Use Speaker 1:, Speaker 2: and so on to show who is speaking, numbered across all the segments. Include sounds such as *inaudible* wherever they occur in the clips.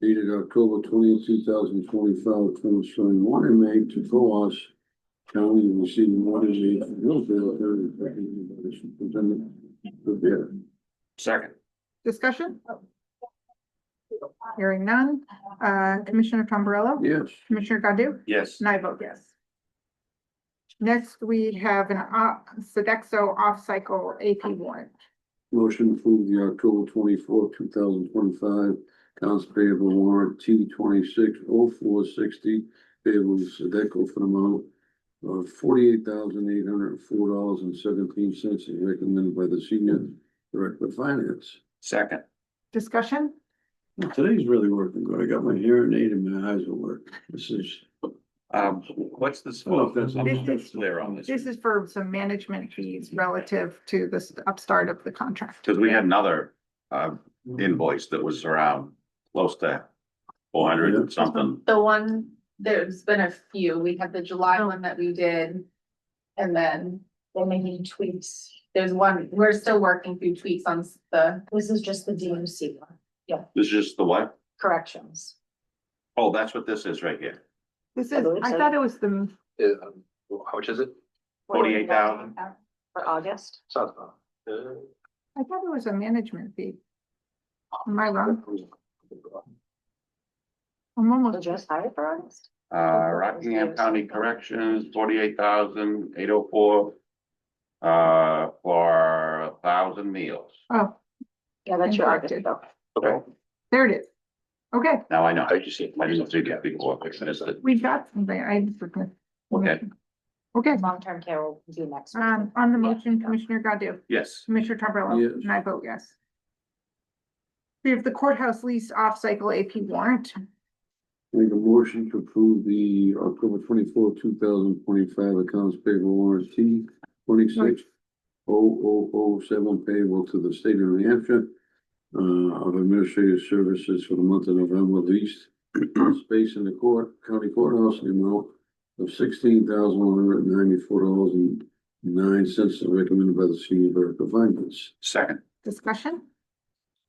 Speaker 1: dated October twentieth, two thousand twenty-five, transferring water main to Coos County and receiving water main from Hillsdale area recommended by the superintendent for bid.
Speaker 2: Second.
Speaker 3: Discussion? Hearing none. Uh, Commissioner Tombrello?
Speaker 1: Yes,
Speaker 3: Commissioner Godu?
Speaker 2: Yes.
Speaker 3: And I vote yes. Next, we have an uh, Sodexo off-cycle AP warrant.
Speaker 1: motion to approve the October twenty-fourth, two thousand twenty-five accounts payable warrant T twenty-six oh four sixty payable to Sedeco for the amount of forty-eight thousand eight hundred and four dollars and seventeen cents as recommended by the senior director of finance.
Speaker 2: Second.
Speaker 3: Discussion?
Speaker 1: Well, Today's really working good. I got my hearing aid and my eyes will work. This is,
Speaker 2: Um, what's this?
Speaker 1: Oh, that's-
Speaker 2: I'm not
Speaker 3: This is-
Speaker 2: Clear on this.
Speaker 3: This is for some management fees relative to this upstart of the contract.
Speaker 2: Cause we had another, uh,
Speaker 1: um,
Speaker 2: invoice that was around close to four hundred and something.
Speaker 4: The one, there's been a few. We had the July
Speaker 5: Oh.
Speaker 4: one that we did. And then they may need tweaks. There's one, we're still working through tweaks on s- the. This is just the DMC one.
Speaker 2: This is just the what?
Speaker 4: Corrections.
Speaker 2: Oh, that's what this is right here.
Speaker 3: This
Speaker 5: I
Speaker 3: is,
Speaker 5: believe
Speaker 3: I
Speaker 5: so.
Speaker 3: thought it was the,
Speaker 6: Uh, how much is it?
Speaker 2: $48,000.
Speaker 5: For August?
Speaker 6: Sounds about. uh,
Speaker 3: I thought it was a management fee. Am I wrong?
Speaker 2: Uh,
Speaker 3: I'm
Speaker 5: Was it
Speaker 3: almost,
Speaker 5: just hired for August?
Speaker 2: Uh, Rockingham County Corrections, forty-eight thousand, eight oh four. Uh, for a thousand meals.
Speaker 3: oh,
Speaker 5: Yeah, that's your August
Speaker 3: Incorrected.
Speaker 5: bill.
Speaker 6: Okay,
Speaker 3: there it is. Okay,
Speaker 2: Now I know.
Speaker 6: I just see.
Speaker 2: I didn't see that before. I missed it.
Speaker 3: we got something. I forgot.
Speaker 2: Okay.
Speaker 3: Okay,
Speaker 5: Long-term care will do next. week.
Speaker 3: um, on the
Speaker 5: Yeah.
Speaker 3: motion, Commissioner Godu?
Speaker 2: Yes.
Speaker 3: Commissioner Tombrello?
Speaker 1: Yes.
Speaker 3: And I vote yes. We have the courthouse lease off-cycle AP warrant.
Speaker 1: make a motion to approve the October twenty-fourth, two thousand twenty-five accounts payable warrant T twenty-six oh oh oh seven payable to the state of New Hampshire uh, of administrative services for the month of November leased space in the court, county courthouse, in the amount of sixteen thousand one hundred and ninety-four dollars and nine cents as recommended by the senior director of finance.
Speaker 2: Second.
Speaker 3: Discussion?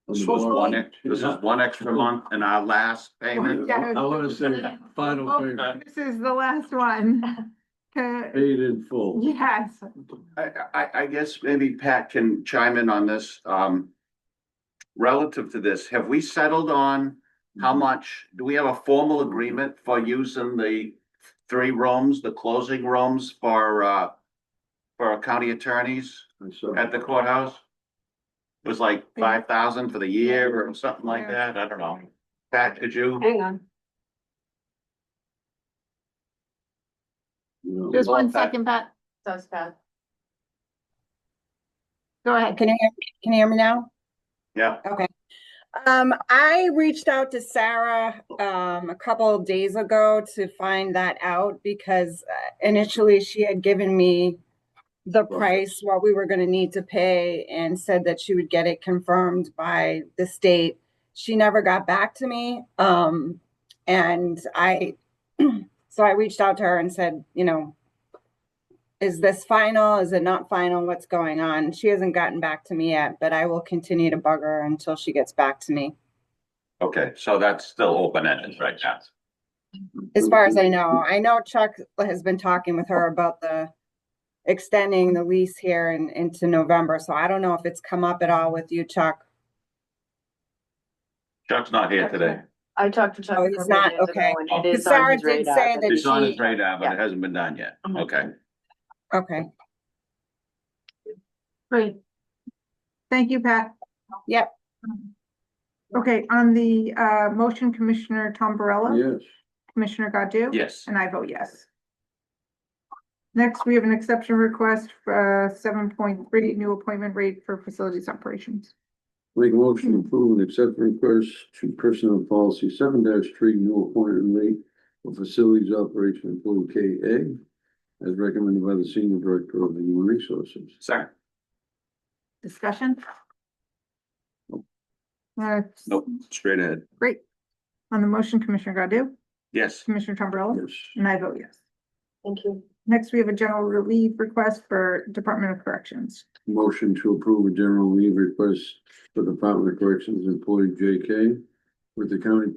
Speaker 2: This was one, eh? ex- this is one extra month in our last payment.
Speaker 3: Yeah.
Speaker 1: I wanna say final
Speaker 3: Oh,
Speaker 1: payment,
Speaker 3: This is the last one. Okay,
Speaker 1: paid in full.
Speaker 3: Yes,
Speaker 2: I, I, I guess maybe Pat can chime in on this, um. Relative to this, have we settled on
Speaker 1: Mm-hmm.
Speaker 2: how much, do we have a formal agreement for using the three rooms, the closing rooms for, uh. For our county attorneys
Speaker 1: I saw.
Speaker 2: at the courthouse? It Was like five thousand for the year or something like that, I don't know. Pat, could you?
Speaker 5: Hang on.
Speaker 1: you know.
Speaker 7: Just one
Speaker 2: Well, that-
Speaker 7: second, Pat.
Speaker 4: Does that?
Speaker 7: Go ahead.
Speaker 8: Can you hear, can you hear me now?
Speaker 2: Yeah,
Speaker 8: Um, I reached out to Sarah, um, a couple of days ago to find that out because uh, initially she had given me the price, what we were gonna need to pay and said that she would get it confirmed by the state. She never got back to me. Um, and I, *clears throat* so I reached out to her and said, you know, is this final? Is it not final? What's going on? She hasn't gotten back to me yet, but I will continue to bug her until she gets back to me.
Speaker 2: okay, so that's still open ended right now.
Speaker 8: As far as I know, I know Chuck has been talking with her about the extending the lease here and into November, so I don't know if it's come up at all with you, Chuck.
Speaker 2: Chuck's not here today.
Speaker 5: I talked to Chuck.
Speaker 8: Oh,
Speaker 5: a
Speaker 8: he's
Speaker 5: couple
Speaker 8: not,
Speaker 5: days ago,
Speaker 8: okay.
Speaker 5: and it
Speaker 8: Because
Speaker 5: is on
Speaker 8: Sarah
Speaker 5: his
Speaker 8: did
Speaker 5: radar,
Speaker 8: say
Speaker 5: but-
Speaker 8: that
Speaker 2: It's on
Speaker 8: she,
Speaker 2: his radar, but it
Speaker 5: Yeah.
Speaker 2: hasn't been done yet.
Speaker 5: Mhm.
Speaker 2: Okay.
Speaker 8: okay,
Speaker 7: Great.
Speaker 3: thank you, Pat.
Speaker 8: Yep.
Speaker 3: Okay, on the uh motion, Commissioner Tom
Speaker 1: Yes,
Speaker 3: Commissioner Godu?
Speaker 2: Yes.
Speaker 3: And I vote yes. Next, we have an exception request for seven point three, new appointment rate for facilities operations.
Speaker 1: make a motion to approve and accept request to personnel policy seven three, new appointment rate for facilities operation employee K A as recommended by the senior director of the human resources.
Speaker 2: Second.
Speaker 3: Discussion? Uh,
Speaker 2: Nope, straight ahead.
Speaker 3: Great. On the motion, Commissioner Godu?
Speaker 2: Yes.
Speaker 3: Commissioner Tom
Speaker 1: Yes,
Speaker 3: And I vote yes.
Speaker 5: Thank you.
Speaker 3: Next, we have a general relief request for Department of Corrections.
Speaker 1: motion to approve a general leave request for Department of Corrections employee J K with the county